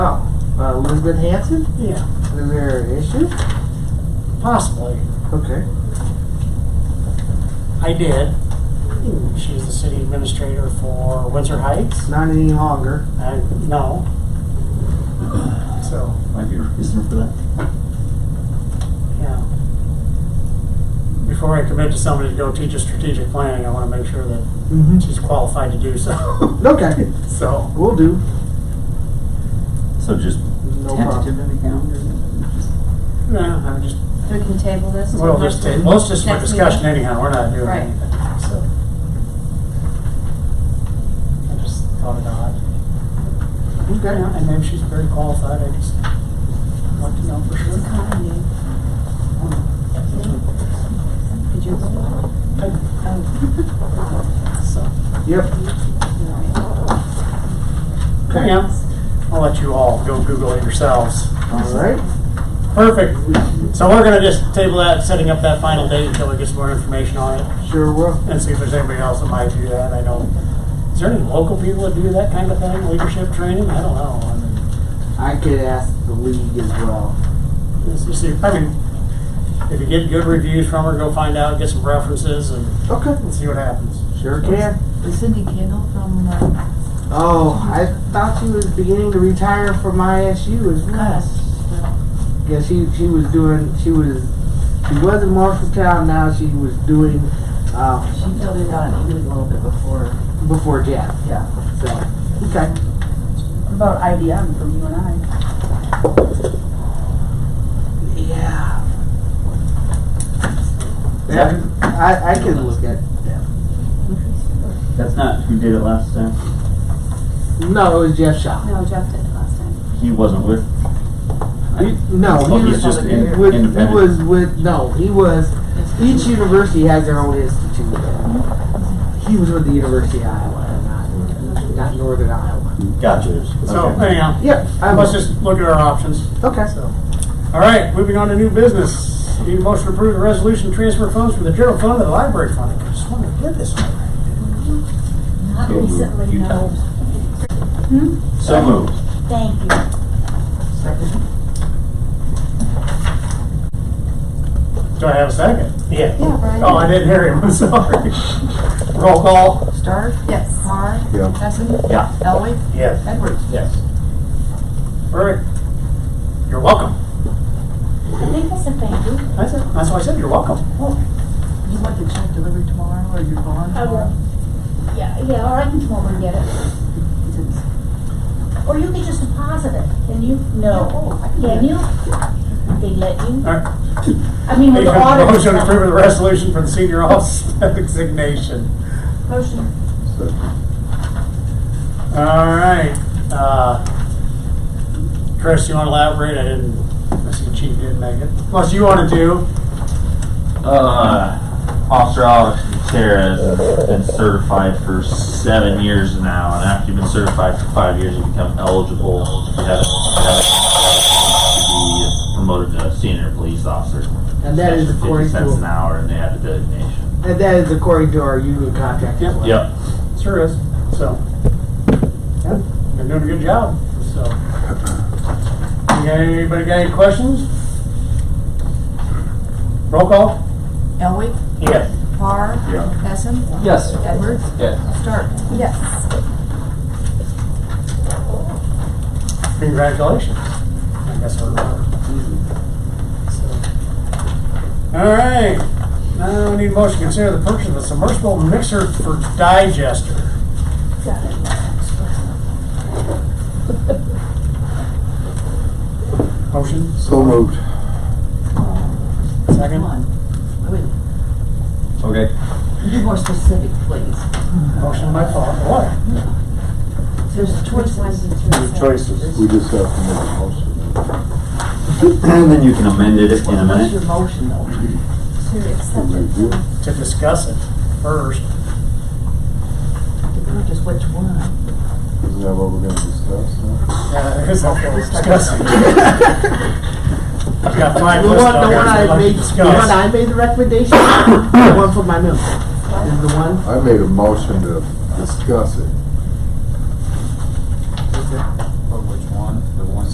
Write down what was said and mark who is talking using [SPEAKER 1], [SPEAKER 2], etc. [SPEAKER 1] Uh, Elizabeth Hanson,
[SPEAKER 2] Yeah,
[SPEAKER 1] are there issues?
[SPEAKER 2] possibly.
[SPEAKER 1] Okay.
[SPEAKER 2] I did. She's the city administrator for Windsor Heights.
[SPEAKER 1] Not any longer.
[SPEAKER 2] I, no. So,
[SPEAKER 3] Might be a reason for that.
[SPEAKER 2] yeah. Before I commit to somebody to go teach us strategic planning, I want to make sure that
[SPEAKER 1] Mm-hmm.
[SPEAKER 2] she's qualified to do so.
[SPEAKER 1] Okay,
[SPEAKER 2] So,
[SPEAKER 1] will do.
[SPEAKER 3] So just
[SPEAKER 1] No
[SPEAKER 3] tentative
[SPEAKER 1] problem.
[SPEAKER 3] in the calendar.
[SPEAKER 2] no, I'm just,
[SPEAKER 4] We can table this.
[SPEAKER 2] we'll just, ta- well, it's just for
[SPEAKER 4] Next
[SPEAKER 2] discussion
[SPEAKER 4] meeting.
[SPEAKER 2] anyhow, we're not doing
[SPEAKER 4] Right.
[SPEAKER 2] anything, so. I just thought it odd. Yeah,
[SPEAKER 1] Okay.
[SPEAKER 2] and maybe she's very qualified, I just want to know for
[SPEAKER 4] It's a
[SPEAKER 2] sure.
[SPEAKER 4] copy, Dave. Did you? Oh.
[SPEAKER 2] So,
[SPEAKER 1] Yep.
[SPEAKER 5] Oh.
[SPEAKER 4] No.
[SPEAKER 1] Okay.
[SPEAKER 2] yeah, I'll let you all go Google it yourselves.
[SPEAKER 1] All right.
[SPEAKER 2] Perfect. So we're gonna just table that, setting up that final date until we get some more information on it
[SPEAKER 1] Sure will.
[SPEAKER 2] and see if there's anybody else that might do that. I don't, is there any local people that do that kind of thing, leadership training? I don't know. I mean,
[SPEAKER 1] I could ask the league as well.
[SPEAKER 2] it's just- I mean, if you get good reviews from her, go find out, get some references and
[SPEAKER 1] Okay.
[SPEAKER 2] and see what happens.
[SPEAKER 1] Sure can.
[SPEAKER 5] Is Cindy Kendall from, uh,
[SPEAKER 1] Oh, I thought she was beginning to retire from ISU as well.
[SPEAKER 5] gosh, uh,
[SPEAKER 1] Yeah, she she was doing she was she was in Marshalltown. Now she was doing uh,
[SPEAKER 5] she filled it out even a little bit before,
[SPEAKER 1] before Jeff.
[SPEAKER 5] yeah.
[SPEAKER 1] So okay,
[SPEAKER 5] What About IBM from you and I.
[SPEAKER 1] yeah. Yeah, I, I can look at that.
[SPEAKER 3] That's not who did it last time.
[SPEAKER 1] No, it was Jeff Shaw.
[SPEAKER 4] No, Jeff did it last time.
[SPEAKER 3] He wasn't with.
[SPEAKER 1] He- no,
[SPEAKER 3] Oh,
[SPEAKER 1] he
[SPEAKER 3] he's
[SPEAKER 1] was
[SPEAKER 3] just in-
[SPEAKER 1] with, he
[SPEAKER 3] independent.
[SPEAKER 1] was with no, he was each university has their own institute. He was with the University of Iowa, not, not Northern Iowa.
[SPEAKER 3] Gotcha.
[SPEAKER 2] So
[SPEAKER 3] Okay.
[SPEAKER 2] anyhow,
[SPEAKER 1] Yep, I
[SPEAKER 2] let's just look at our options.
[SPEAKER 1] Okay.
[SPEAKER 2] So, all right, moving on to new business. Need a motion to approve the resolution to transfer funds from the general fund to the library fund. I just wanted to get this one.
[SPEAKER 4] Not
[SPEAKER 3] So moved.
[SPEAKER 4] recently,
[SPEAKER 3] You
[SPEAKER 4] no.
[SPEAKER 3] times. Hmm? So moved.
[SPEAKER 4] Thank you.
[SPEAKER 2] Do I have a second? Yeah.
[SPEAKER 4] Yeah, Brian.
[SPEAKER 2] Oh, I didn't hear him, I'm sorry. Roll call.
[SPEAKER 5] Stark,
[SPEAKER 4] Yes.
[SPEAKER 5] Mar,
[SPEAKER 3] Yeah.
[SPEAKER 5] Hessen,
[SPEAKER 3] Yeah.
[SPEAKER 5] Elway,
[SPEAKER 2] Yes.
[SPEAKER 5] Edwards.
[SPEAKER 3] Yes.
[SPEAKER 2] Perfect. You're welcome.
[SPEAKER 4] I think that's a thank you.
[SPEAKER 2] That's it. That's why I said you're welcome.
[SPEAKER 5] You want the check delivered tomorrow or you're gone
[SPEAKER 4] I will.
[SPEAKER 5] tomorrow?
[SPEAKER 4] Yeah, yeah, or I can come over and get it. Or you could just deposit it, can you?
[SPEAKER 5] Oh, I can do
[SPEAKER 4] Can
[SPEAKER 5] that.
[SPEAKER 4] you? They let you?
[SPEAKER 2] All right.
[SPEAKER 4] I mean, with
[SPEAKER 2] Need a
[SPEAKER 4] the audit.
[SPEAKER 2] motion to approve the resolution for the senior office designation.
[SPEAKER 4] Motion.
[SPEAKER 2] All right. Uh, Chris, you want to elaborate? I didn't, I see Chief didn't make it. Unless you want to do.
[SPEAKER 3] Uh, Officer Alex Gutierrez has been certified for seven years now, and after you've been certified for five years, you become eligible. If you haven't, you haven't, to be promoted to senior police officer.
[SPEAKER 1] And that is
[SPEAKER 3] That's for
[SPEAKER 1] according
[SPEAKER 3] fifty cents
[SPEAKER 1] to-
[SPEAKER 3] an hour, and they have the designation.
[SPEAKER 1] And that is according to our union contract as well.
[SPEAKER 3] Yep.
[SPEAKER 2] Sure is. So, yeah, you're doing a good job. So, you got anybody got any questions? Roll call?
[SPEAKER 5] Elway,
[SPEAKER 2] Yes.
[SPEAKER 5] Mar,
[SPEAKER 3] Yeah.
[SPEAKER 5] Hessen,
[SPEAKER 1] Yes.
[SPEAKER 5] Edwards,
[SPEAKER 3] Yeah.
[SPEAKER 5] Stark.
[SPEAKER 4] Yes.
[SPEAKER 2] Congratulations. I guess we're on. So, All right. Now I need a motion to consider the purchase of a submersible mixer for digester.
[SPEAKER 4] Got it.
[SPEAKER 2] Motion,
[SPEAKER 6] So moved.
[SPEAKER 2] second.
[SPEAKER 3] Um,
[SPEAKER 5] Come on. Wait,
[SPEAKER 6] Okay.
[SPEAKER 5] be more specific, please.
[SPEAKER 2] Motion by Paul. What?
[SPEAKER 5] There's choices.
[SPEAKER 6] There's choices. We just have to make a motion.
[SPEAKER 3] And then you can amend it in a
[SPEAKER 5] What's your
[SPEAKER 3] minute.
[SPEAKER 5] motion though?
[SPEAKER 4] To accept
[SPEAKER 6] Can
[SPEAKER 4] it.
[SPEAKER 6] we do?
[SPEAKER 2] To discuss it first.
[SPEAKER 5] Just which one?
[SPEAKER 6] Is that what we're gonna discuss now?
[SPEAKER 2] Uh, here's what we're discussing. I've got my
[SPEAKER 1] The one,
[SPEAKER 2] list
[SPEAKER 1] the
[SPEAKER 2] on
[SPEAKER 1] one
[SPEAKER 2] here, so
[SPEAKER 1] I
[SPEAKER 2] let's
[SPEAKER 1] made, the
[SPEAKER 2] discuss.
[SPEAKER 1] one I made the recommendation, the one for my milk, is the one.
[SPEAKER 6] I made a motion to discuss it.